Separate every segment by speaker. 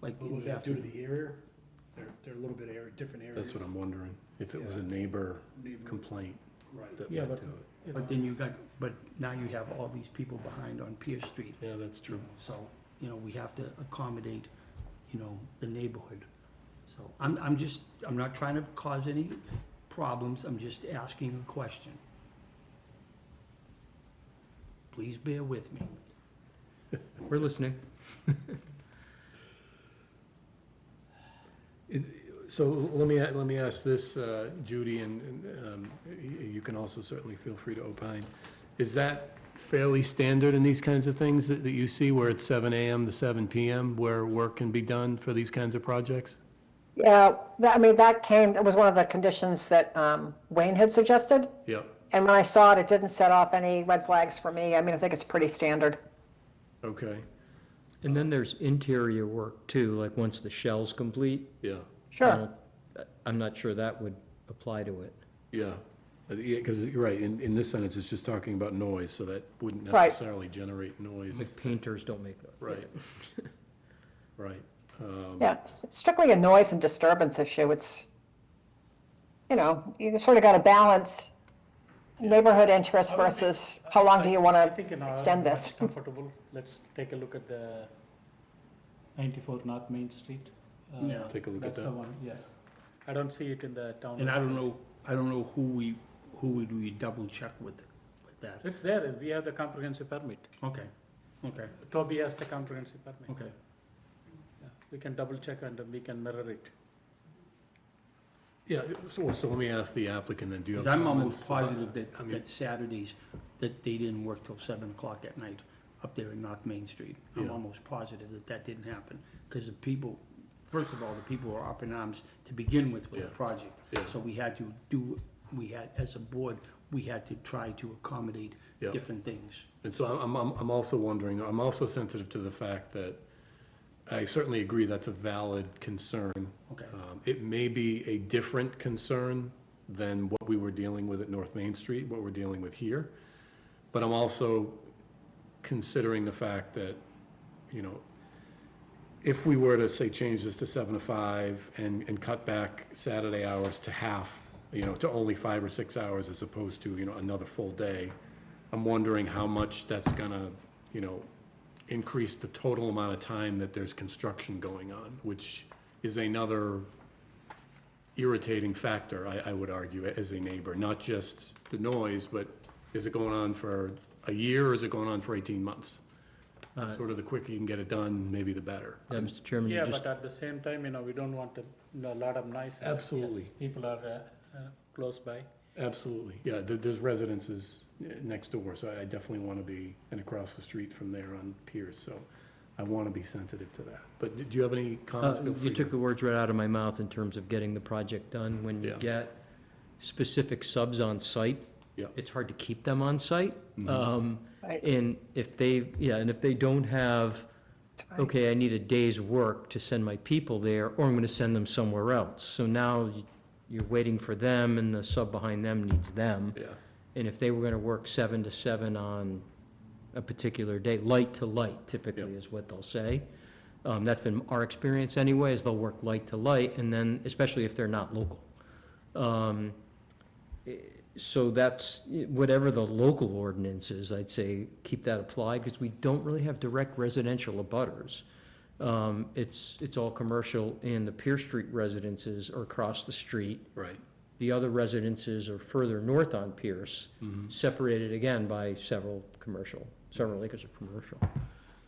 Speaker 1: like
Speaker 2: Well,
Speaker 1: it's
Speaker 2: Due
Speaker 1: after,
Speaker 2: to the area, they're, they're a little bit area, different areas.
Speaker 3: That's what I'm wondering, if it was a
Speaker 2: Yeah.
Speaker 3: neighbor
Speaker 2: Neighbor-
Speaker 3: complaint
Speaker 2: Right.
Speaker 3: that
Speaker 1: Yeah,
Speaker 3: led
Speaker 1: but-
Speaker 3: to it.
Speaker 2: you know.
Speaker 1: but then you got, but now you have all these people behind on Pierce Street.
Speaker 3: Yeah, that's true.
Speaker 1: So, you know, we have to accommodate, you know, the neighborhood. So I'm, I'm just, I'm not trying to cause any problems, I'm just asking a question. Please bear with me.
Speaker 4: We're listening.
Speaker 3: Is, so let me, let me ask this, uh, Judy, and, and, um, y- you can also certainly feel free to opine. Is that fairly standard in these kinds of things that, that you see where it's seven AM to seven PM where work can be done for these kinds of projects?
Speaker 5: Yeah, that, I mean, that came, that was one of the conditions that um, Wayne had suggested.
Speaker 3: Yep,
Speaker 5: And when I saw it, it didn't set off any red flags for me. I mean, I think it's pretty standard.
Speaker 3: okay,
Speaker 4: And then there's interior work too, like once the shell's complete.
Speaker 3: yeah,
Speaker 4: I
Speaker 5: Sure.
Speaker 4: don't- I- I'm not sure that would apply to it.
Speaker 3: yeah. Uh, Yeah, cause you're right, in, in this sentence, it's just talking about noise, so that wouldn't
Speaker 5: Right.
Speaker 3: necessarily generate noise.
Speaker 4: Like painters don't make that.
Speaker 3: Right. Right, um,
Speaker 5: Yeah, it's strictly a noise and disturbance issue. It's, you know, you sort of got to balance neighborhood interest versus how long do you want
Speaker 6: I
Speaker 5: to
Speaker 6: think an hour
Speaker 5: extend
Speaker 6: is
Speaker 5: this?
Speaker 6: comfortable. Let's take a look at the 94 North Main Street. Uh,
Speaker 1: Yeah.
Speaker 3: Take a look at
Speaker 6: That's the
Speaker 3: that.
Speaker 6: one, yes. I don't see it in the town.
Speaker 1: And I don't
Speaker 6: website.
Speaker 1: know, I don't know who we, who would we double check with, with that.
Speaker 6: It's there, we have the comprehensive permit.
Speaker 1: Okay, okay,
Speaker 6: Toby has the comprehensive permit.
Speaker 1: okay.
Speaker 6: Yeah. We can double check and we can mirror it.
Speaker 3: Yeah, so, so let me ask the applicant then, do you have
Speaker 1: Because
Speaker 3: comments?
Speaker 1: I'm almost
Speaker 3: about-
Speaker 1: positive that,
Speaker 3: I mean-
Speaker 1: that Saturdays, that they didn't work till seven o'clock at night up there in North Main Street. I'm
Speaker 3: Yeah.
Speaker 1: almost positive that that didn't happen, because the people, first of all, the people were up in arms to begin with with the
Speaker 3: Yeah.
Speaker 1: project.
Speaker 3: Yeah.
Speaker 1: So we had to do, we had, as a board, we had to try to accommodate
Speaker 3: Yeah.
Speaker 1: different things.
Speaker 3: And so I'm, I'm, I'm also wondering, I'm also sensitive to the fact that I certainly agree that's a valid concern.
Speaker 1: Okay.
Speaker 3: Um, It may be a different concern than what we were dealing with at North Main Street, what we're dealing with here. But I'm also considering the fact that, you know, if we were to say change this to seven to five and, and cut back Saturday hours to half, you know, to only five or six hours as opposed to, you know, another full day, I'm wondering how much that's gonna, you know, increase the total amount of time that there's construction going on, which is another irritating factor, I, I would argue, as a neighbor, not just the noise, but is it going on for a year or is it going on for eighteen months? Sort of the quicker you can get it done, maybe the better.
Speaker 4: Yeah, Mr. Chairman, you
Speaker 6: Yeah,
Speaker 4: just,
Speaker 6: but at the same time, you know, we don't want a a lot of noise. uh, yes,
Speaker 3: Absolutely.
Speaker 6: People are uh, uh, close by.
Speaker 3: Absolutely, yeah, there, there's residences eh, next door, so I definitely want to be, and across the street from there on Pierce, so I want to be sensitive to that. But do do you have any
Speaker 4: uh,
Speaker 3: comments? Feel
Speaker 4: you
Speaker 3: free
Speaker 4: took
Speaker 3: to-
Speaker 4: the words right out of my mouth in terms of getting the project done. When you
Speaker 3: Yeah.
Speaker 4: get specific subs on site,
Speaker 3: Yeah. Mm-hmm.
Speaker 4: it's hard to keep them on site. Um,
Speaker 5: Right.
Speaker 4: and if they, yeah, and if they don't have, okay, I need a day's work to send my people there, or I'm gonna send them somewhere else. So now you- you're waiting for them, and the sub behind them needs them.
Speaker 3: Yeah,
Speaker 4: And if they were gonna work seven to seven on a particular day, light to light typically
Speaker 3: Yep.
Speaker 4: is what they'll say. Um, that's been our experience anyway, is they'll work light to light, and then, especially if they're not local. Um, eh, so that's, eh, whatever the local ordinance is, I'd say, keep that applied, because we don't really have direct residential abutters. Um, it's, it's all commercial, and the Pier Street residences are across the street,
Speaker 3: right,
Speaker 4: the other residences are further north on Pierce, separated again by several commercial, several acres of commercial.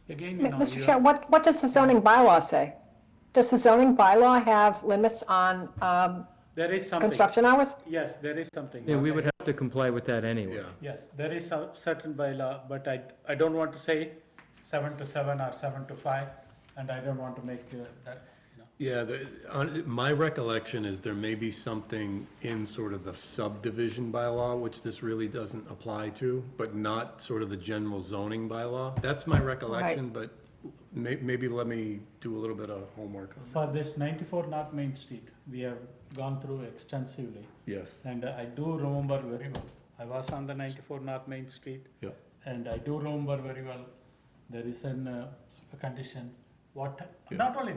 Speaker 6: Again, you know.
Speaker 5: Mr.
Speaker 6: you
Speaker 5: Chair,
Speaker 6: are-
Speaker 5: what, what does the zoning bylaw say? Does the zoning bylaw have limits on um,
Speaker 6: There is something.
Speaker 5: construction hours?
Speaker 6: Yes, there is something.
Speaker 4: Yeah, we would have to comply with that anyway.
Speaker 3: yeah,
Speaker 6: Yes, there is a certain bylaw, but I, I don't want to say seven to seven or seven to five, and I don't want to make uh, that, you know.
Speaker 3: yeah, the, on, my recollection is there may be something in sort of the subdivision bylaw, which this really doesn't apply to, but not sort of the general zoning bylaw. That's my recollection, but may, maybe let me do a little bit of homework on that.
Speaker 6: For this ninety-four North Main Street, we have gone through extensively,
Speaker 3: Yes,
Speaker 6: and I do remember very well. I was on the ninety-four North Main Street,
Speaker 3: yeah,
Speaker 6: and I do remember very well, there is an, uh, condition, what,
Speaker 3: Yeah.
Speaker 6: not only